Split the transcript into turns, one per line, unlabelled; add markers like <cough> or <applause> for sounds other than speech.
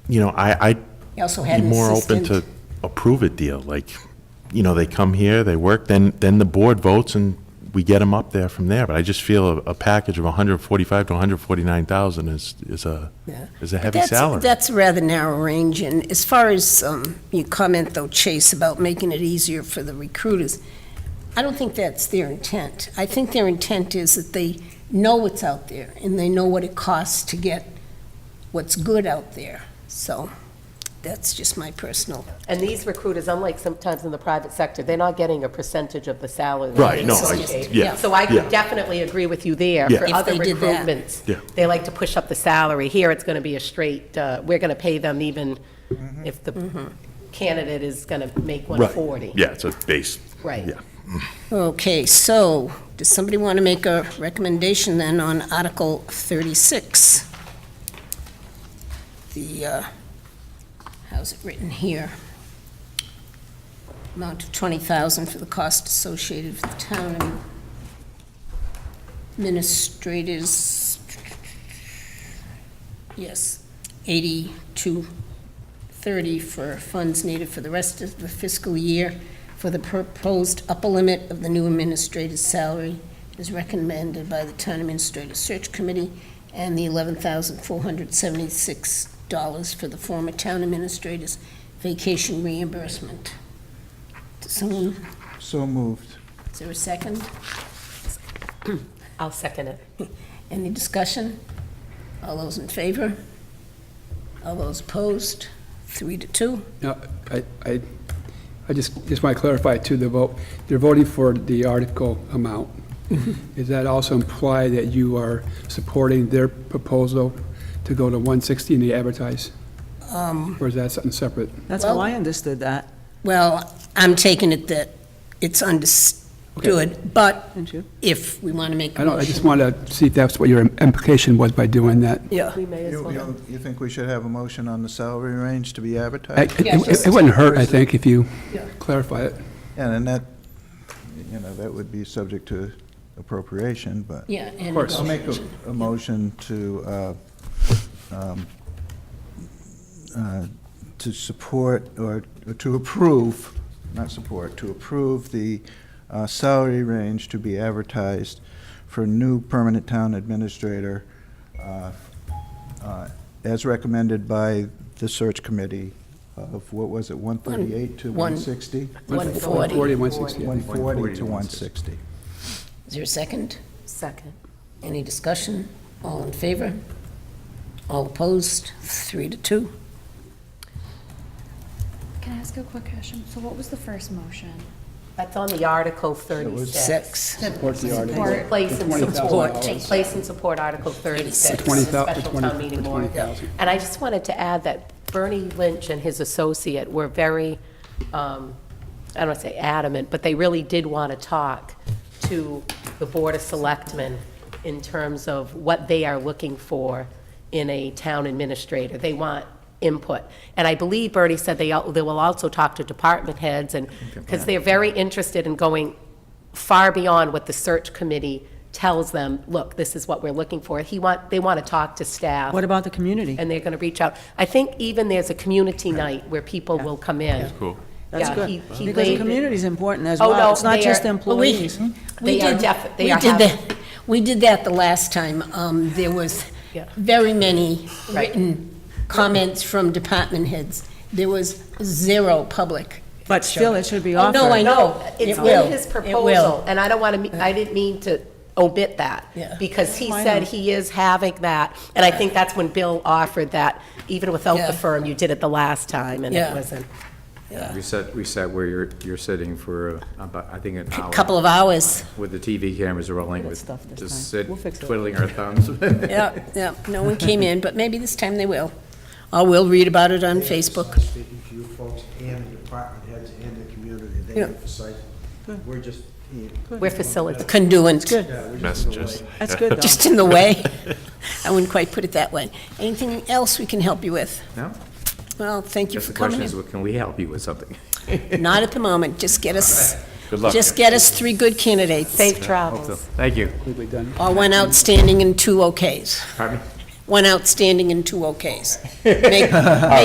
you know, I, I'd
He also
be
had an
more open to
assistant.
approve a deal, like, you know, they come here, they work, then, then the board votes and we get them up there from there, but I just feel a, a package of hundred forty-five to hundred forty-nine thousand is, is a,
Yeah.
is a
But
heavy
that's-
salary.
That's a rather narrow range, and as far as um, your comment, though, Chase, about making it easier for the recruiters, I don't think that's their intent. I think their intent is that they know what's out there, and they know what it costs to get what's good out there. So that's just my personal,
And these recruiters, unlike sometimes in the private sector, they're not getting a percentage of the salary. that
Right,
they
no,
I-
get.
yeah,
So I
yeah.
could definitely agree with you there.
Yeah.
For
If
other
they did that.
recruitments,
Yeah.
they like to push up the salary. Here, it's going to be a straight, uh, we're going to pay them even if
Mm-hmm.
the candidate is going to make
Mm-hmm. Right.
140.
Yeah, it's a base.
Right.
Yeah.
okay, so, does somebody want to make a recommendation then on Article 36? The, uh, how's it written here? Amount of 20000 for the cost associated with the town administrators. Yes, 8230 for funds needed for the rest of the fiscal year for the proposed upper limit of the new administrator's salary is recommended by the Town Administrator Search Committee, and the $11,476 for the former town administrator's vacation reimbursement. Does someone,
So moved.
is there a second?
I'll second it.
Any discussion? All those in favor? All those opposed? Three to two?
No, I, I, I just, just want to clarify too, the vote, they're voting for the article amount.
Mm-hmm.
Does that also imply that you are supporting their proposal to go to 160 and they advertise?
Um.
Or is that something separate?
That's
Well-
how I understood that,
Well, I'm taking it that it's understood, but
didn't you?
if we want to make a
I don't, I just
motion.
want to see if that's what your implication was by doing that.
Yeah.
We may as
You,
well.
you- you think we should have a motion on the salary range to be
I-
advertised?
It it- it wouldn't hurt, I think, if you
Yeah.
clarify it.
And then that, you know, that would be subject to appropriation, but
Yeah. Of
course.
I'll make a, a motion to, uh, um, uh, to support or or to approve, not support, to approve the uh, salary range to be advertised for new permanent town administrator uh, uh, as recommended by the search committee of, what was it, 138 to
One-
160?
140.
140 and 160.
140 to 160.
Is there a second?
Second.
Any discussion? All in favor? All opposed? Three to two.
Can I ask a quick question? So what was the first motion?
That's on the Article 36.
Six.
Support the article.
Support, place and
$20,000.
support, place and support Article 36.
For $20,000 for
Special town
$20,000.
meeting warrant. And I just wanted to add that Bernie Lynch and his associate were very, um, I don't want to say adamant, but they really did want to talk to the Board of Selectmen in terms of what they are looking for in a town administrator. They want input. And I believe Bernie said they, al- they will also talk to department heads and, because they're very interested in going far beyond what the search committee tells them, look, this is what we're looking for. He want, they want to talk to staff
What about the community?
and they're going to reach out. I think even there's a community night where people will come in.
Cool.
That's
Yeah,
good.
he- he
Because the
laid-
community's important as
Oh, no,
well. It's not
they
just
are-
Oh,
employees.
We
They are
did-
def- they
we
are
did
having-
that- We did that the last time. Um, There was
Yeah.
very many
Right.
written comments from department heads. There was zero public.
But still, it should be
Oh,
offered.
no, I know.
No, it's
It will.
in his
It will.
proposal, and I don't want to, I didn't mean to omit that.
Yeah.
Because he
Why
said
not?
he is having that, and I think that's when Bill offered that, even without
Yeah.
the firm, you did it the last time, and
Yeah.
it wasn't.
We sat, we sat where you're, you're sitting for uh, about, I think, an
A
hour.
couple of hours.
With the TV cameras rolling,
Good
with
stuff this time.
just sit
We'll fix it.
twiddling
<laughs>
our thumbs.
Yeah, yeah. No one came in, but maybe this time they will. Or we'll read about it on Facebook.
Speaking to you folks and the department heads and the community, they
Yeah.
emphasize, we're just, yeah,
We're facilitating.
Conduent. Good.
we're just in the
Messages.
way.
That's good, though.
Just in the
<laughs>
way. I wouldn't quite put it that way. Anything else we can help you with?
No?
Well, thank you
<laughs> Just
for
the question
coming
is,
in.
well, can we help you with something?
Not at the moment, just get us,
Good luck.
just get us three good candidates,
Safe
Hope <laughs> so.
travels.
Thank you.
Completely done.
or one outstanding and two okays.
Pardon me? <laughs>
One outstanding and two okays. Make-